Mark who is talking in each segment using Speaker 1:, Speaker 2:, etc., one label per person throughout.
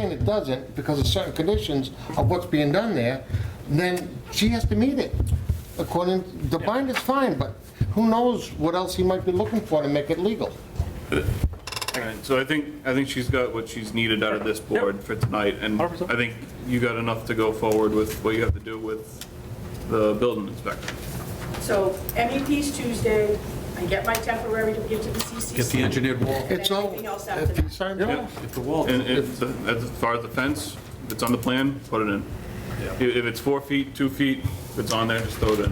Speaker 1: saying it doesn't because of certain conditions of what's being done there, then she has to meet it. According, the bind is fine, but who knows what else he might be looking for to make it legal?
Speaker 2: And So I think, I think she's got what she's needed out of this board for tonight, and I
Speaker 3: 100%.
Speaker 2: think you got enough to go forward with what you have to do with the building inspector.
Speaker 4: So MEP's Tuesday, I get my temporary to give to the CCC.
Speaker 5: Get the engineered wall.
Speaker 1: It's all, E
Speaker 4: Anything else after
Speaker 1: if he
Speaker 4: that?
Speaker 1: signs it off.
Speaker 5: Get the wall.
Speaker 2: And if, as far as the fence, if it's on the plan, put it in.
Speaker 5: Yeah.
Speaker 2: If if it's four feet, two feet, if it's on there, just throw it in.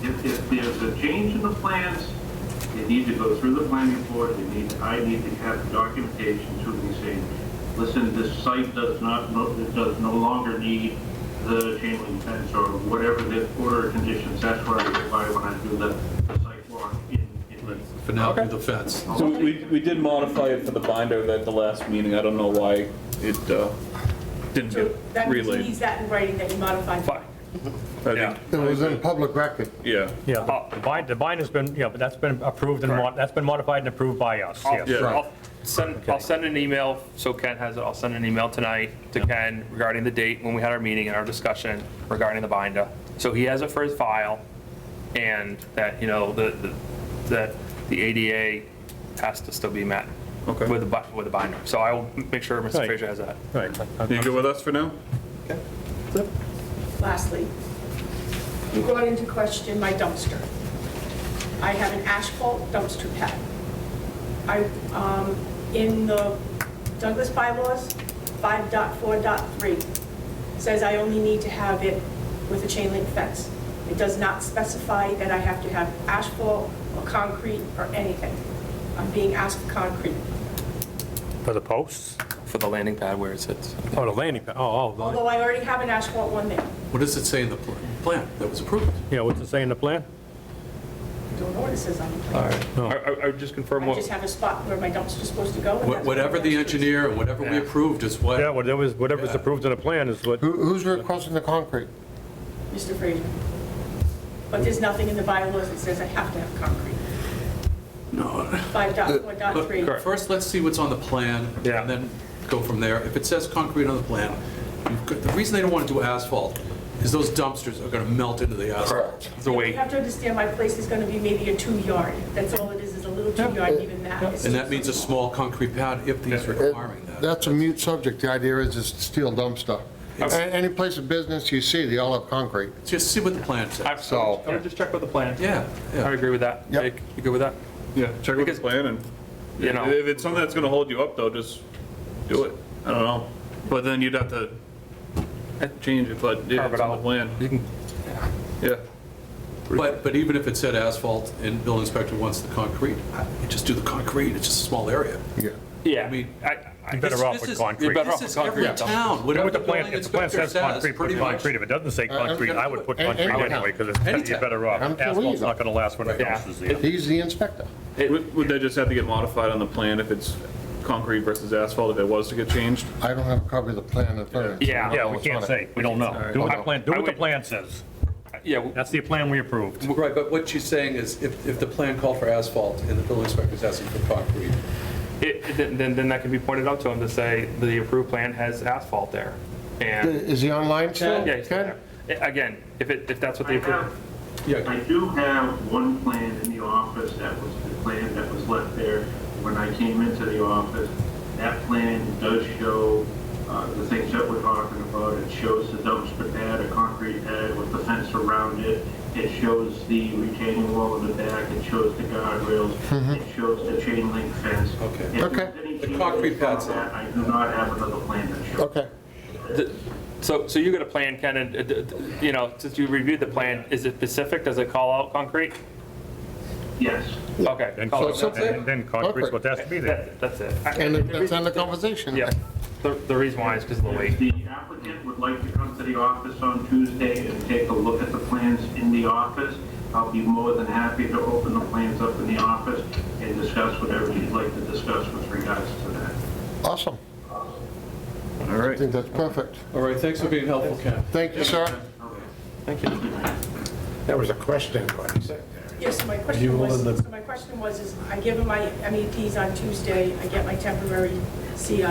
Speaker 6: If, if there's a change in the plans, they need to go through the planning board, they need, I need to have documentation to be saying, listen, this site does not, no- it does no longer need the chain link fence or whatever the order of conditions, that's what I require when I do the, the site walk in, in.
Speaker 5: For now, do the fence.
Speaker 2: So we, we did modify it for the binder at the last meeting, I don't know why it uh, didn't
Speaker 4: So
Speaker 2: get
Speaker 4: that means he
Speaker 2: relayed.
Speaker 4: needs that in writing that he modified.
Speaker 3: Fine.
Speaker 2: I
Speaker 3: Yeah.
Speaker 2: think,
Speaker 1: It was in public record.
Speaker 2: yeah,
Speaker 3: Yeah, uh, the bind, the bind has been, yeah, but that's been approved and, mod- that's been modified and approved by us, yes.
Speaker 2: Yeah.
Speaker 7: I'll send, I'll send an email, so Ken has it, I'll send an email tonight to Ken regarding the date when we had our meeting and our discussion regarding the binder. So he has it for his file, and that, you know, the, the- that the ADA has to still be met.
Speaker 2: Okay.
Speaker 7: With the, bu- with the binder. So I will make sure Mr.
Speaker 3: Right.
Speaker 7: Fraser has that.
Speaker 3: Right.
Speaker 2: you good with us for now?
Speaker 4: Lastly, you brought into question my dumpster. I have an asphalt dumpster pad. I, um, in the Douglas bylaws, 5.4.3 says I only need to have it with a chain link fence. It does not specify that I have to have asphalt or concrete or anything. I'm being asked for concrete.
Speaker 3: For the posts,
Speaker 7: For the landing pad where it sits.
Speaker 3: oh, the landing, pa- oh, oh, the-
Speaker 4: Although I already have an asphalt one there.
Speaker 5: What does it say in the pl- plan that was approved?
Speaker 3: yeah, what's it say in the plan?
Speaker 4: I don't know what it says on the plan.
Speaker 7: All right. I, I would just confirm
Speaker 4: I just
Speaker 7: what,
Speaker 4: have a spot where my dumpster's supposed to go. and
Speaker 5: Wha-
Speaker 4: that's where
Speaker 5: Whatever
Speaker 4: my
Speaker 5: the
Speaker 4: dumpster is.
Speaker 5: engineer and whatever we
Speaker 7: Yeah.
Speaker 5: approved is
Speaker 3: Yeah,
Speaker 5: what,
Speaker 3: whatever's, whatever's approved in the plan is what,
Speaker 1: Who- Who's requesting the concrete?
Speaker 4: Mr. Fraser. But there's nothing in the bylaws that says I have to have concrete.
Speaker 5: no.
Speaker 4: Five dot, four dot
Speaker 5: But
Speaker 4: three.
Speaker 5: First, let's see what's on the plan,
Speaker 7: Yeah.
Speaker 5: and then go from there. If it says concrete on the plan, you've got- the reason they don't want to do asphalt is those dumpsters are going to melt into the asphalt.
Speaker 7: the
Speaker 4: You
Speaker 7: weight,
Speaker 4: have to understand my place is gonna be maybe a two-yard. That's all it is, is a little two-yard, even that. It's just-
Speaker 5: And that means a small concrete pad if he's requiring that.
Speaker 1: That's a mute subject. The idea is it's steel dumpster. A- Any place of business you see, they all have concrete.
Speaker 5: Just see what the plan says.
Speaker 1: So-
Speaker 7: I would just check with the plan.
Speaker 5: Yeah, yeah.
Speaker 7: I agree with that.
Speaker 1: Yep.
Speaker 7: Jake, You good with that?
Speaker 2: Yeah, check with the
Speaker 7: Because-
Speaker 2: plan and,
Speaker 7: You know.
Speaker 2: if it's something that's gonna hold you up though, just do it. I don't know. But then you'd have to change it, but yeah,
Speaker 7: Carve
Speaker 2: it's
Speaker 7: it
Speaker 2: on the
Speaker 7: out.
Speaker 2: plan.
Speaker 7: You can
Speaker 2: Yeah,
Speaker 5: But, but even if it said asphalt and building inspector wants the concrete, I- you just do the concrete, it's just a small area.
Speaker 1: Yeah.
Speaker 7: Yeah,
Speaker 5: I mean,
Speaker 7: I, I,
Speaker 3: You're better off
Speaker 5: This-
Speaker 3: with
Speaker 5: this is-
Speaker 3: concrete.
Speaker 5: You're better off
Speaker 7: This
Speaker 5: with
Speaker 7: is
Speaker 5: concrete.
Speaker 7: every
Speaker 5: town,
Speaker 3: Yeah,
Speaker 5: whatever
Speaker 3: with the
Speaker 5: the
Speaker 3: plan,
Speaker 5: building
Speaker 3: if the plan
Speaker 5: inspector
Speaker 3: says concrete,
Speaker 5: says,
Speaker 3: put
Speaker 5: pretty much.
Speaker 3: concrete, if it doesn't say
Speaker 1: Uh,
Speaker 3: concrete, I would put
Speaker 1: I'm-
Speaker 3: concrete
Speaker 1: I'm-
Speaker 3: anyway, because it's, you're
Speaker 5: Anytime.
Speaker 3: better off.
Speaker 1: I'm too
Speaker 3: Asphalt's
Speaker 1: easy.
Speaker 3: not gonna last when it
Speaker 7: Yeah.
Speaker 3: comes to zero.
Speaker 1: He's the inspector.
Speaker 2: would, would that just have to get modified on the plan if it's concrete versus asphalt, if it was to get changed?
Speaker 1: I don't have a copy of the plan in front of me.
Speaker 7: Yeah.
Speaker 3: Yeah, we can't say, we don't know. Do what the plan, do what the
Speaker 7: I would-
Speaker 3: plan says.
Speaker 7: yeah, w-
Speaker 3: That's the plan we approved.
Speaker 5: Right, but what she's saying is if, if the plan called for asphalt and the building inspector's asking for concrete,
Speaker 7: it, it- then- then, then that can be pointed out to him to say, the approved plan has asphalt there. And,
Speaker 1: Is he online still?
Speaker 7: yeah, he's still
Speaker 1: Ken?
Speaker 7: there. A- again, if it, if that's what
Speaker 6: I
Speaker 7: they approved,
Speaker 6: have,
Speaker 5: yeah,
Speaker 6: I do have one plan in the office that was the plan that was left there when I came into the office. That plan does show uh, the things that we're talking about. It shows the dumpster pad, a concrete pad with the fence around it. It shows the retaining wall in the back. It shows the guardrails. It shows the chain link fence.
Speaker 5: Okay.
Speaker 6: If there's
Speaker 1: Mm-hmm. Okay.
Speaker 6: any
Speaker 5: The concrete
Speaker 6: changes on
Speaker 5: pad's there.
Speaker 6: that, I do not have another plan that shows.
Speaker 1: Okay.
Speaker 7: the- so, so you got a plan, Ken, and, uh, d- d- you know, since you reviewed the plan, is it specific? Does it call out concrete?
Speaker 6: Yes.
Speaker 7: Okay.
Speaker 3: Then
Speaker 7: call
Speaker 3: con-
Speaker 7: it
Speaker 1: so-
Speaker 7: concrete.
Speaker 3: and then concrete's what has to be there.
Speaker 7: That- That's it. I-
Speaker 1: And that's end the
Speaker 7: the-
Speaker 1: conversation.
Speaker 7: Yeah, the, the reason why is because of the weight.
Speaker 6: If the applicant would like to come to the office on Tuesday and take a look at the plans in the office, I'll be more than happy to open the plans up in the office and discuss whatever you'd like to discuss with regards to that.
Speaker 1: Awesome.
Speaker 2: All
Speaker 1: I
Speaker 2: right.
Speaker 1: think that's perfect.
Speaker 5: All right, thanks for being helpful, Ken.
Speaker 1: Thank you, sir.
Speaker 8: That was a question, but he said there.
Speaker 4: Yes, so my
Speaker 8: You
Speaker 4: question
Speaker 8: will
Speaker 4: was,
Speaker 8: in the-
Speaker 4: E so my question was, is I give him my MEPs on Tuesday, I get my temporary CI,